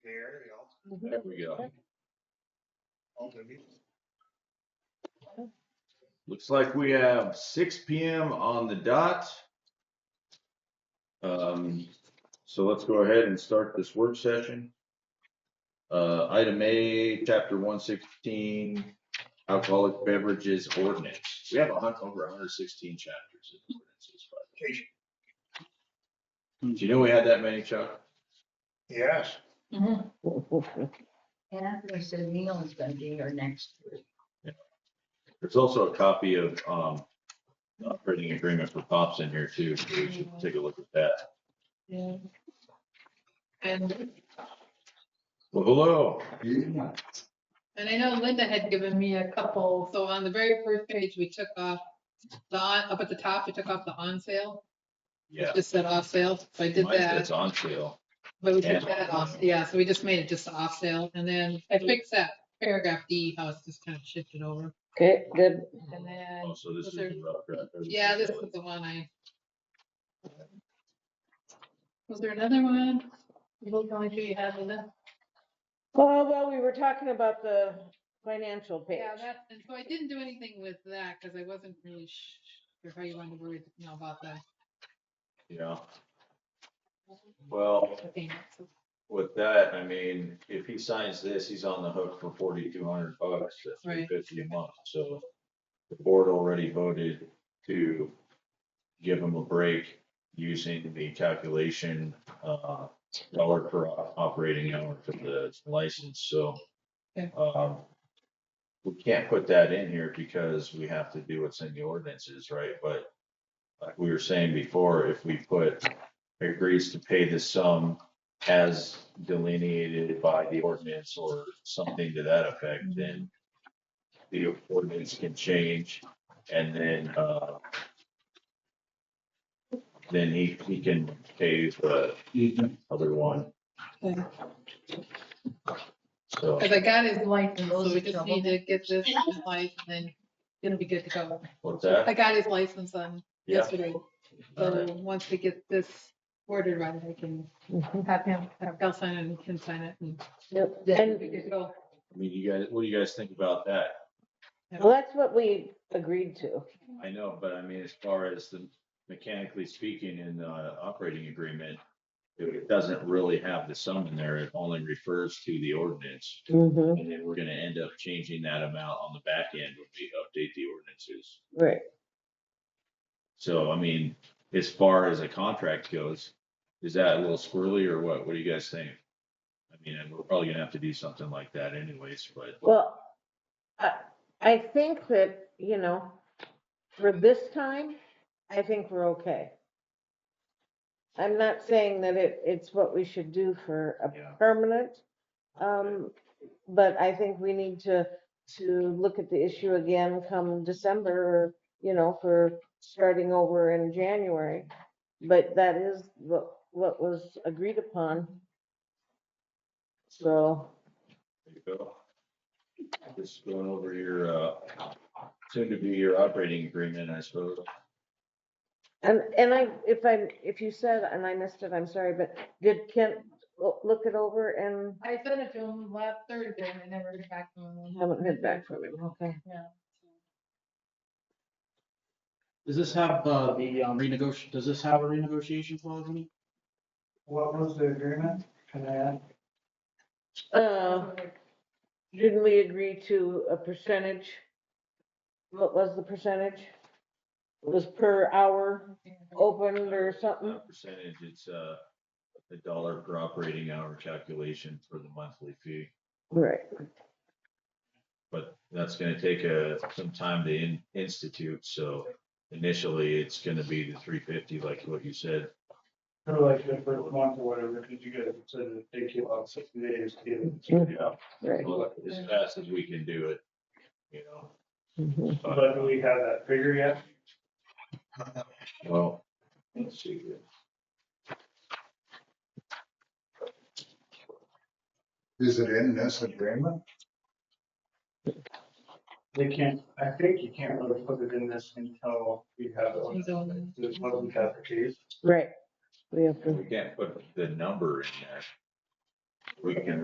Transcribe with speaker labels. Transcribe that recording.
Speaker 1: Mm-hmm. There we go. Looks like we have six P M on the dot. Um, so let's go ahead and start this work session. Uh, item A, chapter one sixteen, alcoholic beverages ordinance. We have a hun- over hundred sixteen chapters. in ordinances, by the way. Did you know we had that many, Chuck?
Speaker 2: Yes,
Speaker 3: And Anthony said Neil's gonna be here next week.
Speaker 1: There's also a copy of, um, the operating agreement for Pops in here too. so We should take a look at that.
Speaker 4: And,
Speaker 1: Well, hello.
Speaker 4: and I know Linda had given me a couple, so on the very first page, we took off the, on up at the top, we took off the on sale.
Speaker 1: Yeah.
Speaker 4: Just said off sale, so I did
Speaker 1: Mine
Speaker 4: that,
Speaker 1: says on sale.
Speaker 4: but we
Speaker 1: and
Speaker 4: took that
Speaker 1: on
Speaker 4: off,
Speaker 1: sale.
Speaker 4: yeah, so we just made it just off sale, and then I fixed that paragraph D, how it's just kind of shifted over.
Speaker 5: Okay, good.
Speaker 4: And then,
Speaker 1: Oh, so this is
Speaker 4: Those are-
Speaker 1: the rough draft.
Speaker 4: yeah, this is the one I. Was there another one? You look on, you have Linda?
Speaker 5: Well, well, we were talking about the financial page.
Speaker 4: Yeah, that's, and so I didn't do anything with that because I wasn't really sh- sure how you wanted to word, you know, about the
Speaker 1: Yeah. Well,
Speaker 4: the payments.
Speaker 1: with that, I mean, if he signs this, he's on the hook for forty-two hundred bucks, that's three
Speaker 4: Right.
Speaker 1: fifty a month, so. The board already voted to give him a break using the calculation, uh, dollar per o- operating hour for the license, so.
Speaker 4: Okay.
Speaker 1: Um, we can't put that in here because we have to do what's in the ordinances, right? But like we were saying before, if we put agrees to pay the sum as delineated by the ordinance or something to that effect, then the ordinance can change and then, uh, then he, he can pay the other one.
Speaker 4: Okay.
Speaker 1: So,
Speaker 4: Because I got his license,
Speaker 3: Those
Speaker 4: so
Speaker 3: are
Speaker 4: we just
Speaker 3: trouble.
Speaker 4: need to get this license and then it'll be good to go.
Speaker 1: what's that?
Speaker 4: I got his license on
Speaker 1: Yeah.
Speaker 4: yesterday,
Speaker 1: All right.
Speaker 4: so once we get this ordered right, I can
Speaker 5: Mhm.
Speaker 4: have him, have Gal sign it and he can sign it and
Speaker 5: Yep.
Speaker 4: then
Speaker 5: And-
Speaker 4: it'll be good to go.
Speaker 1: I mean, you guys, what do you guys think about that?
Speaker 5: Well, that's what we agreed to.
Speaker 1: I know, but I mean, as far as the mechanically speaking in the operating agreement, it doesn't really have the sum in there. It only refers to the ordinance.
Speaker 5: Mm-hmm.
Speaker 1: And then we're gonna end up changing that amount on the back end when we update the ordinances.
Speaker 5: Right.
Speaker 1: So I mean, as far as a contract goes, is that a little squirrely or what? What do you guys think? I mean, and we're probably gonna have to do something like that anyways, but
Speaker 5: Well, I, I think that, you know, for this time, I think we're okay. I'm not saying that it, it's what we should do for
Speaker 1: Yeah.
Speaker 5: a permanent. Um, but I think we need to, to look at the issue again come December, or, you know, for starting over in January. But that is what, what was agreed upon. So,
Speaker 1: There you go. Just going over your, uh, soon to be your operating agreement, I suppose.
Speaker 5: And, and I, if I, if you said, and I missed it, I'm sorry, but did Kent lo- look it over and
Speaker 4: I sent it to him last Thursday and I never got back to him.
Speaker 5: haven't heard back from him, okay?
Speaker 6: Does this have uh, the um, renegoti, does this have a renegotiation clause in it?
Speaker 2: what was the agreement? Can I add?
Speaker 5: Uh, didn't we agree to a percentage? What was the percentage? It was per hour opened or something?
Speaker 1: Uh, Percentage, it's, uh, a dollar per operating hour calculation for the monthly fee.
Speaker 5: Right,
Speaker 1: But that's gonna take, uh, some time to in, institute, so initially it's gonna be the three fifty, like what you said.
Speaker 2: Sort of like the first month or whatever, because you guys said it take you about sixty days to get it.
Speaker 1: Yeah.
Speaker 5: right.
Speaker 1: Well, As fast as we can do it, you know.
Speaker 5: Mhm.
Speaker 2: But do we have that figure yet?
Speaker 1: Well, let's see here.
Speaker 7: Is it in this agreement?
Speaker 2: They can't, I think you can't really put it in this until we have.
Speaker 4: He's on-
Speaker 2: There's one we have the case.
Speaker 5: Right. We have to.
Speaker 1: We can't put the number in there. We can